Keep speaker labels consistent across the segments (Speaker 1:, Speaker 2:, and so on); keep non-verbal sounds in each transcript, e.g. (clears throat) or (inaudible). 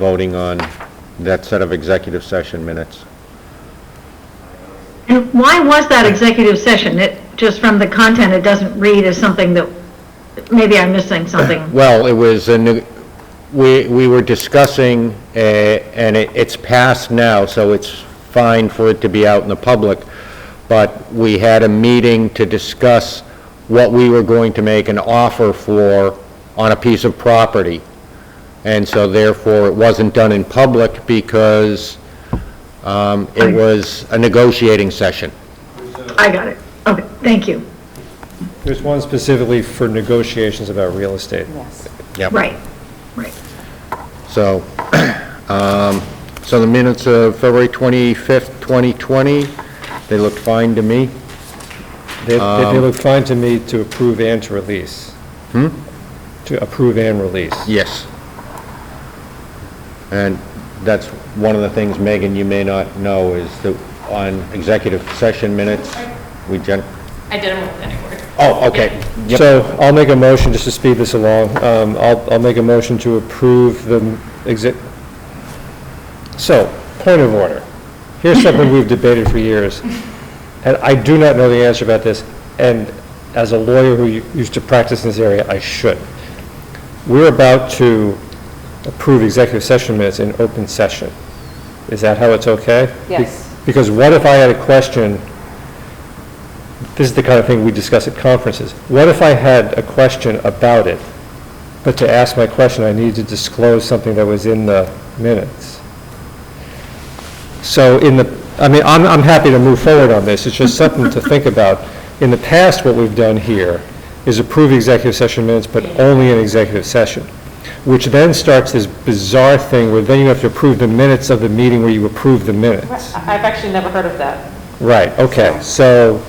Speaker 1: voting on that set of executive session minutes.
Speaker 2: And why was that executive session? It, just from the content, it doesn't read as something that, maybe I'm missing
Speaker 1: (laughs)
Speaker 2: something.
Speaker 1: Well, it was, a new- we we were discussing, uh, and it- it's passed now, so it's fine for it to be out in the public, but we had a meeting to discuss what we were going to make an offer for on a piece of property. And so therefore, it wasn't done in public because um, it was a negotiating session.
Speaker 2: I got it. Okay, thank you.
Speaker 3: There's one specifically for negotiations about real estate.
Speaker 1: Yep.
Speaker 2: Right, right.
Speaker 1: So, (clears throat) um, so the minutes of February 25th, 2020, they looked fine to me.
Speaker 3: They, they look fine to me to approve and to release. Hmm? To approve and release.
Speaker 1: Yes. And that's one of the things, Megan, you may not know, is that on executive session minutes, we gen,
Speaker 4: I did them with any word.
Speaker 1: oh, okay. Yep.
Speaker 3: So I'll make a motion, just to speed this along, um, I'll, I'll make a motion to approve the exit. So, point of order.
Speaker 1: (laughs)
Speaker 3: Here's something we've debated for years, and I do not know the answer about this, and as a lawyer who u- used to practice in this area, I should. We're about to approve executive session minutes in open session. Is that how it's okay? Be-
Speaker 4: Yes.
Speaker 3: Because what if I had a question this is the kind of thing we discuss at conferences. What if I had a question about it, but to ask my question, I needed to disclose something that was in the minutes? So in the, I mean, I'm, I'm happy to move forward on this, it's just something to think about. In the past, what we've done here is approve executive session minutes, but only in executive session, which then starts this bizarre thing where then you have to approve the minutes of the meeting where you approve the minutes.
Speaker 4: I've actually never heard of that.
Speaker 3: Right, okay, so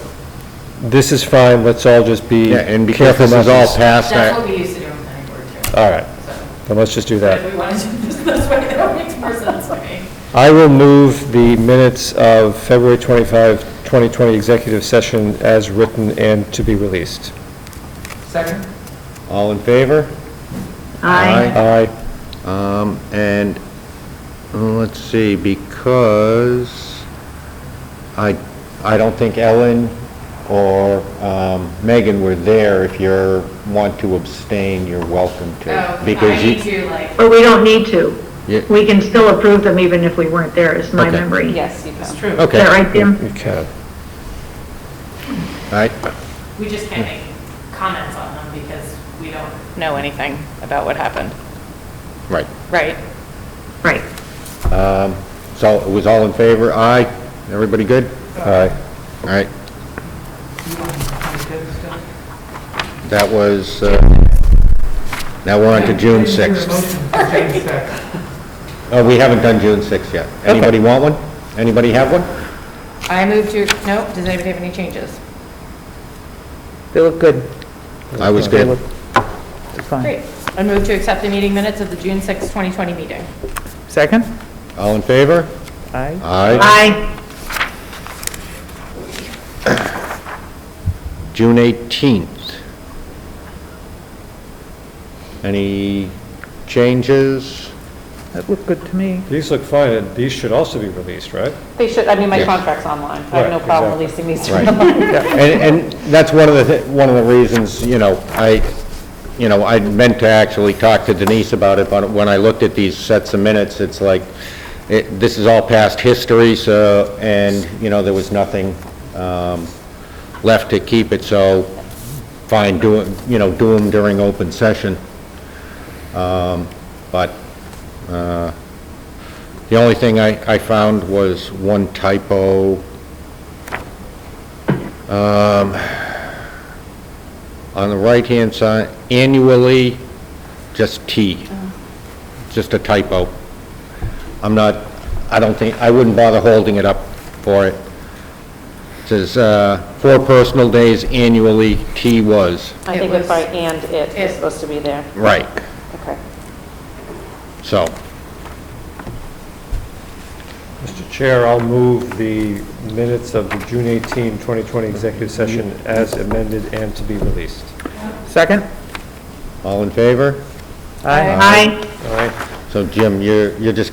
Speaker 3: this is fine, let's all just be
Speaker 1: Yeah, and because
Speaker 3: careful
Speaker 1: this
Speaker 3: about
Speaker 1: is all
Speaker 3: this.
Speaker 1: passed,
Speaker 4: That's what
Speaker 1: I-
Speaker 4: we used to do with any word too.
Speaker 3: All right,
Speaker 4: So
Speaker 3: then let's just do
Speaker 4: if
Speaker 3: that.
Speaker 4: we want to (laughs) do this this way, that makes more sense to me.
Speaker 3: I will move the minutes of February 25, 2020 executive session as written and to be released.
Speaker 4: Second?
Speaker 1: all in favor?
Speaker 2: I,
Speaker 3: Aye.
Speaker 1: Um, and, uh, let's see, because I, I don't think Ellen or, um, Megan were there. If you're, want to abstain, you're welcome to.
Speaker 4: Oh,
Speaker 1: because
Speaker 4: I
Speaker 1: you-
Speaker 4: need to like.
Speaker 2: but we don't need to.
Speaker 1: Yeah.
Speaker 2: We can still approve them even if we weren't there, is my
Speaker 1: Okay.
Speaker 2: memory. Is
Speaker 4: Yes, you can. It's true.
Speaker 1: Okay.
Speaker 2: that right, Jim?
Speaker 3: You can.
Speaker 1: All right,
Speaker 4: We just can't make comments on them because we don't. Know anything about what happened.
Speaker 1: right.
Speaker 4: Right.
Speaker 2: Right.
Speaker 1: Um, so it was all in favor? Aye? Everybody good?
Speaker 3: Aye.
Speaker 1: All right. That was, uh, now we're on to June 6th. Oh, we haven't done June 6th yet. Anybody want one? Anybody have one?
Speaker 4: I move to, no, does anybody have any changes?
Speaker 5: They look good.
Speaker 1: I was
Speaker 5: They
Speaker 1: good.
Speaker 5: look it's fine.
Speaker 4: Great. I move to accept the meeting minutes of the June 6, 2020 meeting.
Speaker 5: Second?
Speaker 1: All in favor?
Speaker 5: Aye.
Speaker 1: Aye.
Speaker 2: I,
Speaker 1: June 18th. Any changes?
Speaker 5: That looked good to me.
Speaker 3: These look fine, and these should also be released, right?
Speaker 4: They should, I mean,
Speaker 1: Yeah.
Speaker 4: my contract's online. I have no
Speaker 3: Right,
Speaker 4: problem
Speaker 3: exactly.
Speaker 4: releasing these.
Speaker 1: Right. And, and that's one of the, thi- one of the reasons, you know, I, you know, I meant to actually talk to Denise about it, but when I looked at these sets of minutes, it's like, it, this is all past history, so, and, you know, there was nothing, um, left to keep it, so fine, do, it- you know, do them during open session. Um, but, uh, the only thing I, I found was one typo, on the right-hand side, annually, just T. Just a typo. I'm not, I don't think, I wouldn't bother holding it up for it. It Says, uh, four personal days annually, T was.
Speaker 6: I
Speaker 4: It
Speaker 6: think
Speaker 4: was-
Speaker 6: it's by and it
Speaker 4: it-
Speaker 6: is supposed to be there.
Speaker 1: Right,
Speaker 6: Okay.
Speaker 1: so,
Speaker 3: Mr. Chair, I'll move the minutes of the June 18, 2020 executive session as amended and to be released.
Speaker 5: Second?
Speaker 1: all in favor?
Speaker 5: Aye.
Speaker 2: I,
Speaker 3: All right,
Speaker 1: So Jim, you're, you're just